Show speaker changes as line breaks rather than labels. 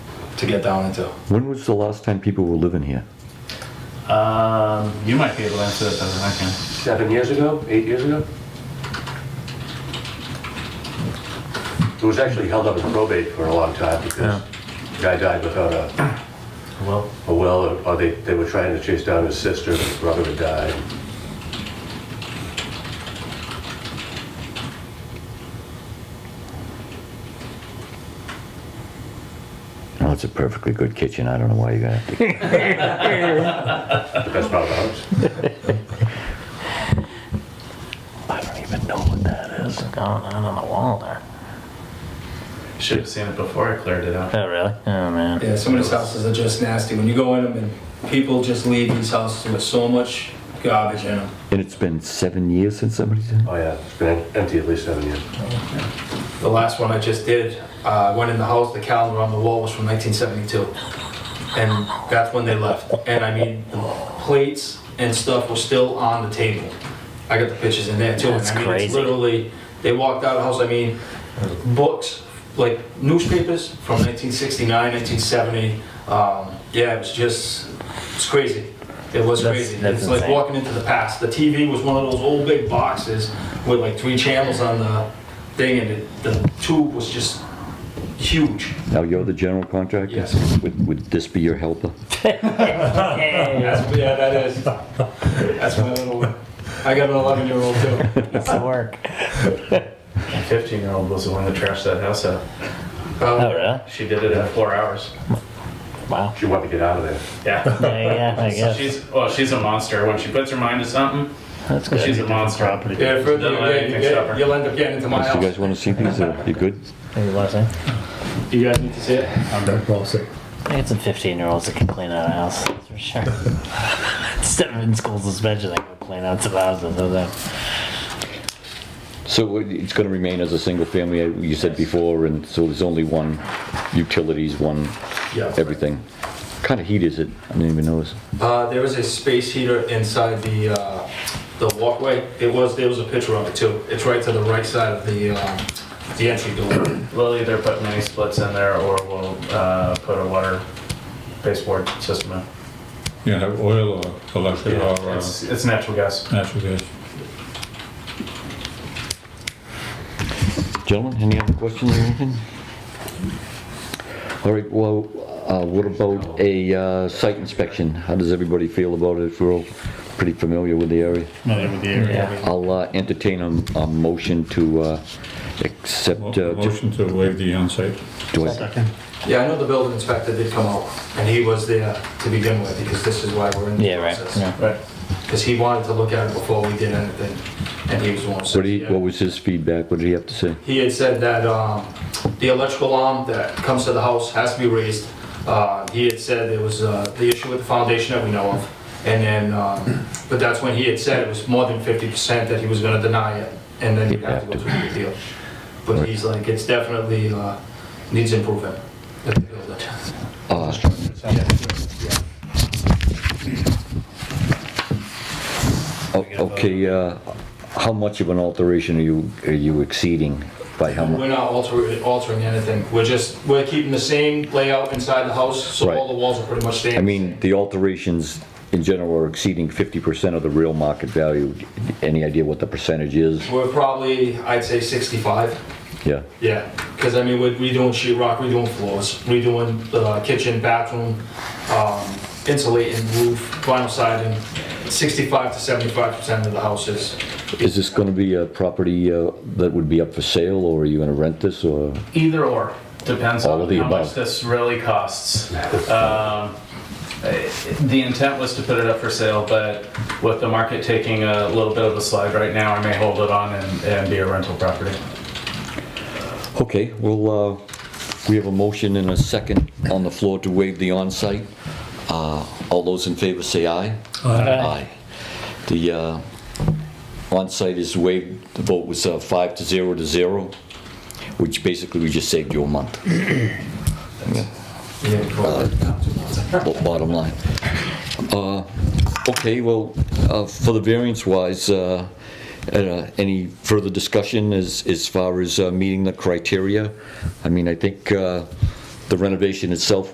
to get down into.
When was the last time people were living here?
Um, you might be able to answer that better than I can.
Seven years ago, eight years ago? It was actually held up in probate for a long time because the guy died without a,
Well,
a will, or- or they, they were trying to chase down his sister, his brother had died.
Oh, it's a perfectly good kitchen. I don't know why you're gonna have to.
The best part of the house.
I don't even know what that is.
It's going on on the wall there.
should have seen it before I cleared it out.
Oh, really? Oh, man.
Yeah, some of these houses are just nasty. When you go in them, and people just leave these houses with so much garbage in them.
And it's been seven years since somebody's in.
Oh, yeah, it's been empty at least seven years.
The last one I just did, uh, went in the house, the calendar on the wall was from 1972. And that's when they left. And I mean, plates and stuff were still on the table. I got the pictures in there too. and
That's
I mean, It's
crazy.
literally, they walked out of the house, I mean, books, like newspapers from 1969, 1970. Um, yeah, it was just, it's crazy. It was
That's-
crazy.
that's
It's like
insane.
walking into the past. The TV was one of those old big boxes with like three channels on the thing, and it, the tube was just huge.
Now you're the general contractor.
Yes.
Would, would this be your helper?
That's, yeah, that is. That's my little one. I got an 11 year old too.
It's the work.
My 15 year old was the one that trashed that house out.
Oh,
Um,
really?
She did it in four hours.
Wow.
She wanted to get out of there.
Yeah.
Yeah, yeah, I guess.
She's well. She's a monster. When she puts her mind to something,
That's good.
she's a
Different
monster.
Property.
yeah, the further you
Don't let
get, you
anything stop her.
get, you'll end up getting into my
Do you
house.
guys want to see these? Or you good?
Maybe last name.
you guys need to see it.
I think it's some 15 year olds that can clean out a house, that's for sure. Instead of in school suspension, they can clean out some houses. so that-
So it- it's going to remain as a single family, uh, you said before, and so there's only one utilities, one
Yeah.
everything. What Kind of heat is it? I didn't even notice.
Uh, there was a space heater inside the, uh, the walkway. It was, there was a picture of it too. It's right to the right side of the, um, the entry door.
We'll either put mini splits in there, or we'll uh, put a water baseboard system in.
You have oil or electric or uh,
It's, it's natural gas.
natural gas.
Gentlemen, any other questions or anything? All right, well, uh, what about a uh, site inspection? How does everybody feel about it? We're all pretty familiar with the area.
Yeah.
I'll uh, entertain a a motion to uh,
Mo-
accept. uh,
Motion to waive the onsite.
do I-
Yeah, I know the building inspector did come out, and he was there to begin with, because this is why we're in the
Yeah, right.
process.
Yeah.
Right.
Because he wanted to look at it before we did anything, and he was the one who said
What do you- what
yeah.
was his feedback? What did he have to say?
He had said that um, the electrical arm that comes to the house has to be raised. Uh, He had said there was uh, the issue with the foundation that we know of, and then, um, but that's when he had said it was more than 50% that he was gonna deny it, and then you'd have to go through the appeal. But he's like, it's definitely, uh, needs improvement. at the building.
Uh, o- Okay, uh, how much of an alteration are you, are you exceeding by how
We're
much?
not altering, altering anything, we're just, we're keeping the same layout inside the house, so
Right.
all the walls are pretty much staying.
I mean, the alterations in general are exceeding 50% of the real market value. Any idea what the percentage is?
We're probably, I'd say sixty-five,
Yeah,
yeah, because I mean, we're redoing sheet rock, redoing floors, redoing the kitchen, bathroom, um, insulating roof, vinyl siding, sixty-five to seventy-five percent of the house is.
is this gonna be a property uh, that would be up for sale, or are you gonna rent this, or?
Either or. Depends
All
on
of the
how much
above.
this really costs. Um, eh, The intent was to put it up for sale, but with the market taking a little bit of a slide right now, I may hold it on and, and be a rental property.
Okay, well, uh, we have a motion and a second on the floor to waive the onsite. Uh, All those in favor say aye. Aye. The uh, onsite is waived, the vote was uh, five to zero to zero, which basically we just saved you a month, bo- bottom line. Uh, Okay, well, uh, for the variance wise, uh, uh, any further discussion as, as far as uh, meeting the criteria? I mean, I think uh, the renovation itself